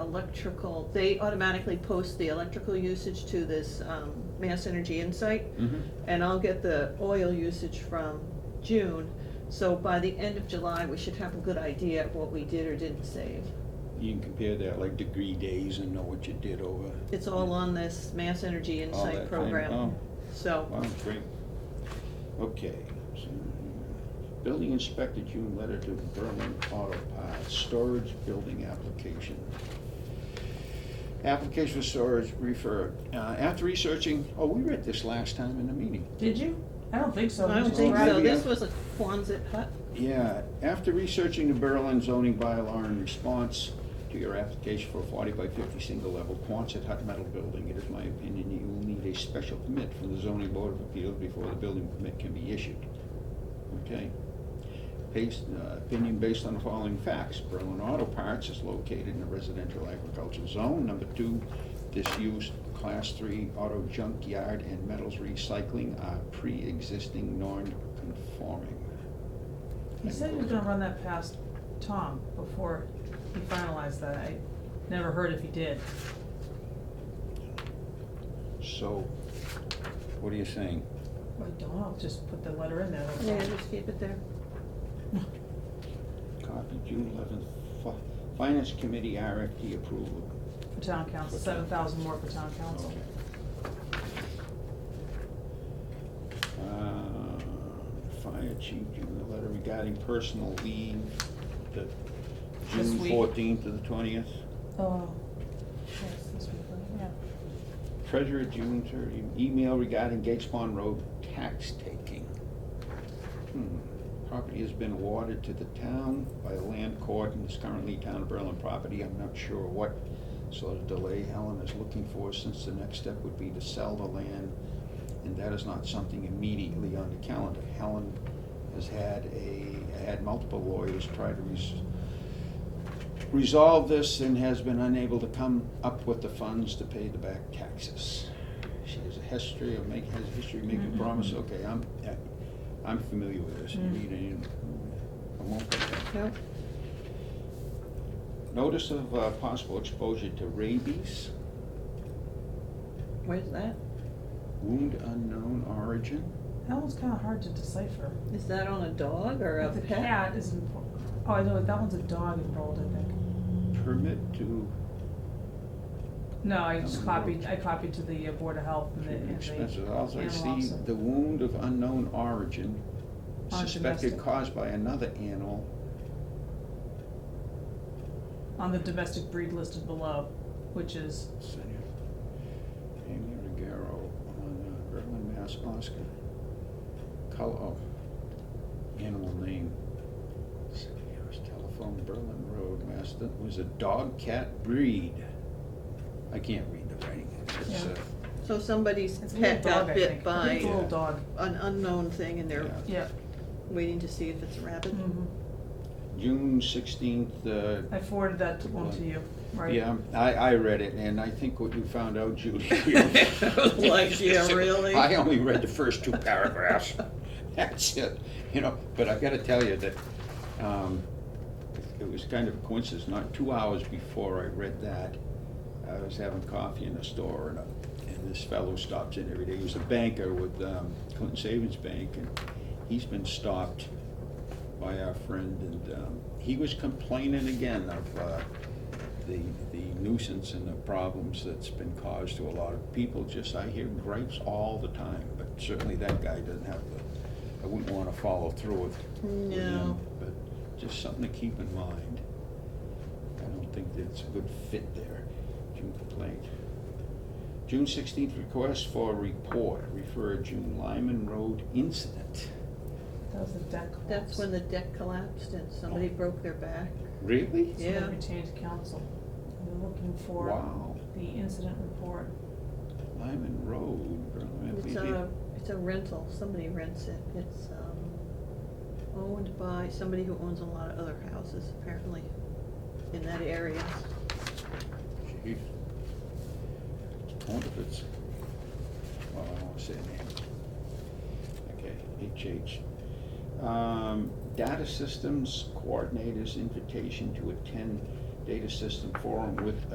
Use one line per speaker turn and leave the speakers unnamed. electrical, they automatically post the electrical usage to this um, Mass Energy Insight,
Mhm.
and I'll get the oil usage from June. So by the end of July, we should have a good idea of what we did or didn't save.
You can compare that like degree days and know what you did over.
It's all on this Mass Energy
All that
Insight
thing.
program.
Oh,
So,
wow, great. Okay. so, Building inspector, June letter to Berlin Auto Parts, storage building application. Application for storage referred. Uh, after researching, oh, we read this last time in the meeting.
Did you? I don't think so.
I
You
don't
just
think
grabbed
so,
it.
this was a Quonset hut.
Yeah, after researching the Berlin zoning bylaw in response to your application for a forty by fifty single level Quonset hut metal building, it is my opinion that you will need a special permit from the zoning board of appeals before the building permit can be issued. Okay? Based, uh, opinion based on the following facts, Berlin Auto Parts is located in a residential agricultural zone, number two, disused class three auto junkyard and metals recycling are pre-existing non-conforming.
He said he was gonna run that past Tom before he finalized that. I never heard if he did.
So, what are you saying?
I don't know, just put the letter in there. that's all.
Yeah, just keep it there.
Copy June eleventh, Finance Committee RFP approval.
For town council,
For town-
seven thousand more for town council.
Uh, Fire chief, June, the letter regarding personal leave, the
This
June
week.
fourteenth to the twentieth.
Oh. Yes, this week, yeah.
Treasurer, June thirty, email regarding Gates Pond Road tax taking. Hmm, Property has been awarded to the town by the land court and is currently town of Berlin property. I'm not sure what sort of delay Helen is looking for since the next step would be to sell the land. And that is not something immediately on the calendar. Helen has had a, had multiple lawyers try to res- resolve this and has been unable to come up with the funds to pay the back taxes. She has a history of making, has a history of making
Mhm.
promises. Okay, I'm, I'm familiar with this. You
Mm.
need any- I won't put that.
No?
Notice of uh, possible exposure to rabies,
Where's that?
wound unknown origin.
That one's kinda hard to decipher.
Is that on a dog or a
The
pet?
cat is important. Oh, I know, that one's a dog involved, I think.
Permit to
No, I
That
just
one
copied,
worked.
I copied to the uh, Board of Health and the, and the
expenses. Also, I
animal
see
officer.
the wound of unknown origin
On
suspected
domestic.
caused by another animal.
On the domestic breed listed below, which is,
Senior. Amy Regaro on uh, Berlin, Mass. Oscar. Color, oh, animal name. Senior's telephone, Berlin Road, Mass. That was a dog cat breed. I can't read the writing. It's,
Yeah.
uh,
So somebody's
it's a
pet
little dog,
got
I
bit
think.
by
It's a
Yeah.
little dog,
an unknown thing and they're
Yeah.
yeah.
waiting to see if it's a rabbit.
Mhm.
June sixteenth, uh,
I forwarded that one to you, right?
yeah, I, I read it, and I think what you found out, Judy.
Like, yeah, really?
I only read the first two paragraphs. That's it, you know, but I gotta tell you that, um, it was kind of a coincidence, not two hours before I read that, I was having coffee in a store, and, a- and this fellow stops in every day, he was a banker with, um, Clinton Savings Bank, and he's been stopped by our friend, and, um, he was complaining again of, uh, the, the nuisance and the problems that's been caused to a lot of people, just, I hear gripes all the time, but certainly that guy doesn't have the, I wouldn't wanna follow through with. with him,
No.
But just something to keep in mind. I don't think that's a good fit there, June complaint. June sixteenth, request for report, refer June Lyman Road incident.
That was the deck collapse.
That's when the deck collapsed and somebody broke their back.
Really?
So then
Yeah.
we changed council. We're looking for
Wow,
the incident report.
Lyman Road, Berlin,
It's uh,
maybe-
a, it's a rental, somebody rents it. It's um, owned by somebody who owns a lot of other houses apparently in that area.
Jeez. I wonder if it's, well, I don't wanna say name. Okay, HH. Um, Data Systems Coordinators Invitation to attend Data System Forum with